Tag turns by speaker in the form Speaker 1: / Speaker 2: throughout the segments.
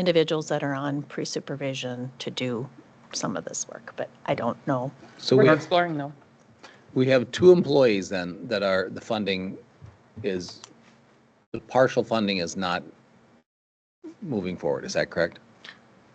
Speaker 1: individuals that are on pre-supervision to do some of this work, but I don't know.
Speaker 2: So we
Speaker 3: We're
Speaker 2: have,
Speaker 3: exploring though.
Speaker 2: we have two employees then that are, the funding is, the partial funding is not moving forward. Is that correct?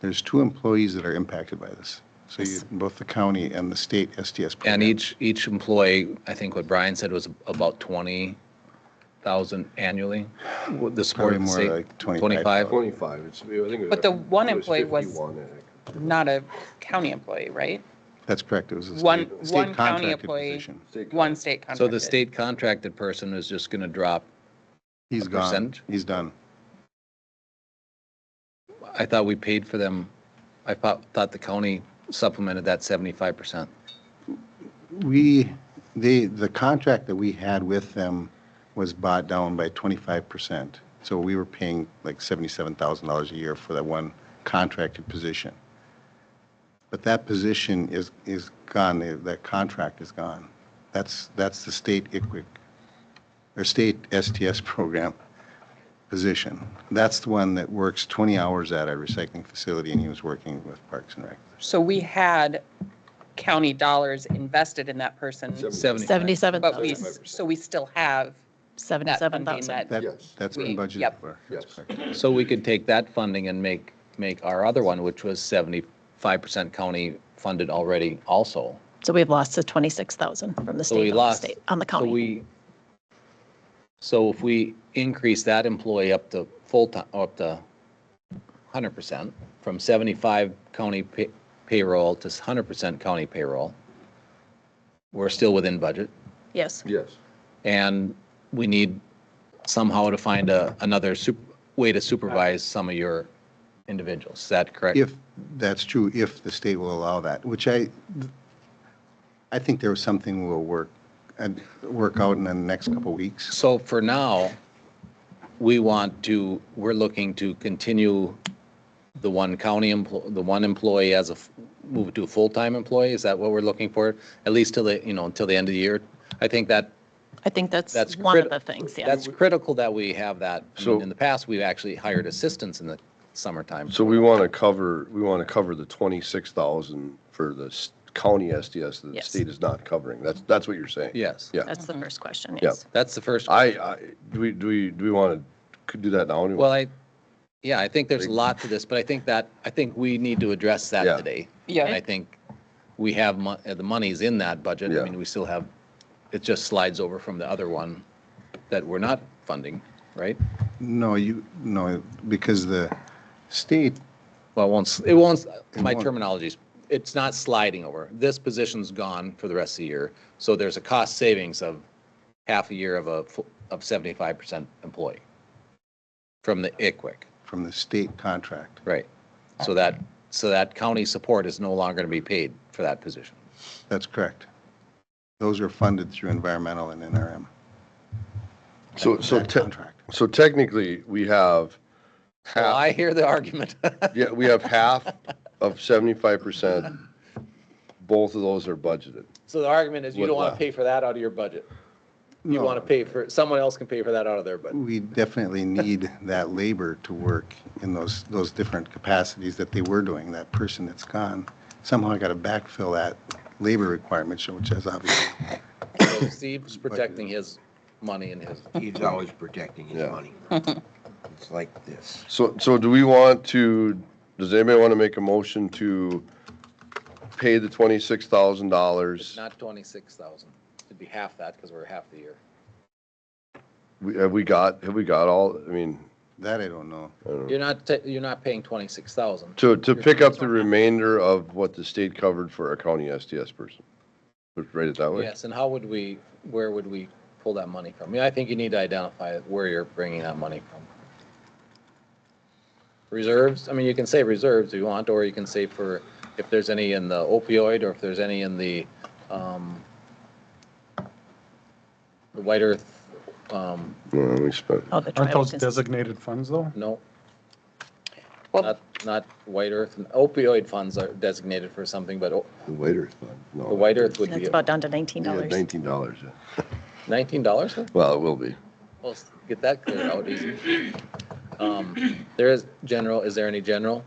Speaker 4: There's two employees that are impacted by this. So you, both the county and the state STS. program.
Speaker 2: And each, each employee, I think what Brian said was about 20,000 annually? Would The
Speaker 4: Probably
Speaker 2: support,
Speaker 4: more
Speaker 2: say,
Speaker 4: like
Speaker 2: 25?
Speaker 4: 25.
Speaker 5: 25, it's, I think. it
Speaker 3: But the one
Speaker 5: it
Speaker 3: employee was-
Speaker 5: 51, I think.
Speaker 3: Not a county employee, right?
Speaker 4: That's correct. It was a
Speaker 3: One-
Speaker 4: state-
Speaker 3: one
Speaker 4: state
Speaker 3: county
Speaker 4: contracted
Speaker 3: employee.
Speaker 4: position.
Speaker 5: State
Speaker 3: One state contracted.
Speaker 2: So the state contracted person is just going to drop,
Speaker 4: He's
Speaker 2: A
Speaker 4: gone.
Speaker 2: percentage?
Speaker 4: He's done.
Speaker 2: I thought we paid for them, I thought, thought the county supplemented that 75%.
Speaker 4: We, the, the contract that we had with them was bought down by 25%. So we were paying like $77,000 a year for that one contracted position. But that position is, is gone, The- that contract is gone. That's, that's the state ICWIC, or state STS program position. That's the one that works 20 hours at a recycling facility, and he was working with Parks and Rec.
Speaker 3: So we had county dollars invested in that person,
Speaker 1: Seventy-seven
Speaker 3: but we,
Speaker 1: thousand.
Speaker 3: s- so we still have
Speaker 1: Seventy-seven thousand.
Speaker 3: that-
Speaker 4: That-
Speaker 5: Yes.
Speaker 4: That's been
Speaker 3: We-
Speaker 4: budgeted
Speaker 3: yep.
Speaker 4: for.
Speaker 5: Yes.
Speaker 2: So we could take that funding and make, make our other one, which was seventy-five percent county funded already also.
Speaker 1: So we've lost the twenty-six thousand from the
Speaker 2: So we
Speaker 1: state, on the
Speaker 2: lost.
Speaker 1: state, on the
Speaker 2: so
Speaker 1: county.
Speaker 2: we- So if we increase that employee up to full-time, up to hundred percent, from seventy-five county pay- payroll to hundred percent county payroll, we're still within budget.
Speaker 1: Yes,
Speaker 5: Yes.
Speaker 2: And we need somehow to find a, another sup, way to supervise some of your individuals. Is that correct?
Speaker 4: If, that's true, if the state will allow that, which I, I think there was something we'll work, and work out in the next couple of weeks.
Speaker 2: So for now, we want to, we're looking to continue the one county employee, the one employee as a, f- move to a full-time employee? Is that what we're looking for? At least till the, you know, until the end of the year? I think that,
Speaker 1: I think that's
Speaker 2: That's
Speaker 1: one of
Speaker 2: crit-
Speaker 1: the things, yeah.
Speaker 2: that's critical that we have that. I mean,
Speaker 5: So-
Speaker 2: In the past, we've actually hired assistants in the summertime.
Speaker 5: So we want to cover, we want to cover the 26,000 for the s- county SDS that the
Speaker 1: Yes.
Speaker 5: state is not covering. That's, that's what you're saying?
Speaker 2: Yes.
Speaker 5: Yeah.
Speaker 1: That's the first question,
Speaker 5: Yep.
Speaker 1: yes.
Speaker 2: That's the first.
Speaker 5: I, I, do we, do we, do we want to do that now? anyway?
Speaker 2: Well, I, yeah, I think there's a lot to this, but I think that, I think we need to address that
Speaker 5: Yeah.
Speaker 2: today.
Speaker 3: Yeah.
Speaker 2: And I think we have, mon- uh, the money's in that budget. I
Speaker 5: Yeah.
Speaker 2: mean, we still have, it just slides over from the other one that we're not funding, right?
Speaker 4: No, you, no, because the state,
Speaker 2: Well, it won't, s- it won't, s- my
Speaker 4: won't.
Speaker 2: terminology's, it's not sliding over. This position's gone for the rest of the year. So there's a cost savings of half a year of a, fu- of 75% employee from the ICWIC.
Speaker 4: from the state contract,
Speaker 2: Right. So that, so that county support is no longer going to be paid for that position.
Speaker 4: that's correct. Those are funded through environmental and NRM.
Speaker 5: So, so,
Speaker 4: That
Speaker 5: te-
Speaker 4: contract.
Speaker 5: so technically, we have
Speaker 2: Well,
Speaker 5: half,
Speaker 2: I hear the argument.
Speaker 5: yeah, we have half of 75%. Both of those are budgeted.
Speaker 2: So the argument is you
Speaker 5: What
Speaker 2: don't want to
Speaker 5: left?
Speaker 2: pay for that out of your budget. You
Speaker 4: No.
Speaker 2: want to pay for, someone else can pay for that out of their budget.
Speaker 4: We definitely need that labor to work in those, those different capacities that they were doing, that person that's gone. Somehow I got to backfill that labor requirement, so- which is obviously
Speaker 2: So Steve's protecting his money and his,
Speaker 6: He's always protecting his
Speaker 5: Yeah.
Speaker 6: money. It's like this.
Speaker 5: So, so do we want to, does anybody want to make a motion to pay the twenty-six thousand dollars?
Speaker 2: not 26,000. It'd be half that because we're half the year.
Speaker 5: Have we got, have we got all, I mean,
Speaker 4: That I don't know.
Speaker 5: I don't know.
Speaker 2: You're not, ta- you're not paying 26,000.
Speaker 5: to, to pick up the remainder of what the state covered for a county STS person? Let's write it that way?
Speaker 2: Yes, and how would we, where would we pull that money from? Yeah, I think you need to identify where you're bringing that money from. Reserves, I mean, you can say reserves if you want, or you can say for, if there's any in the opioid, or if there's any in the, um, the White Earth, um,
Speaker 5: Yeah, we spent,
Speaker 1: Oh, the
Speaker 7: Aren't
Speaker 1: tribal
Speaker 7: those
Speaker 1: cons-
Speaker 7: designated funds, though?
Speaker 2: no,
Speaker 3: Well,
Speaker 2: not, not White Earth, opioid funds are designated for something, but o-
Speaker 5: the waiter's fund, no.
Speaker 2: the White Earth would
Speaker 1: That's
Speaker 2: be
Speaker 1: about down to nineteen
Speaker 5: Yeah,
Speaker 1: dollars.
Speaker 5: Nineteen dollars, yeah.
Speaker 2: nineteen dollars,
Speaker 5: Well, it will be.
Speaker 2: well, get that cleared out easy. Um, There is general, is there any general?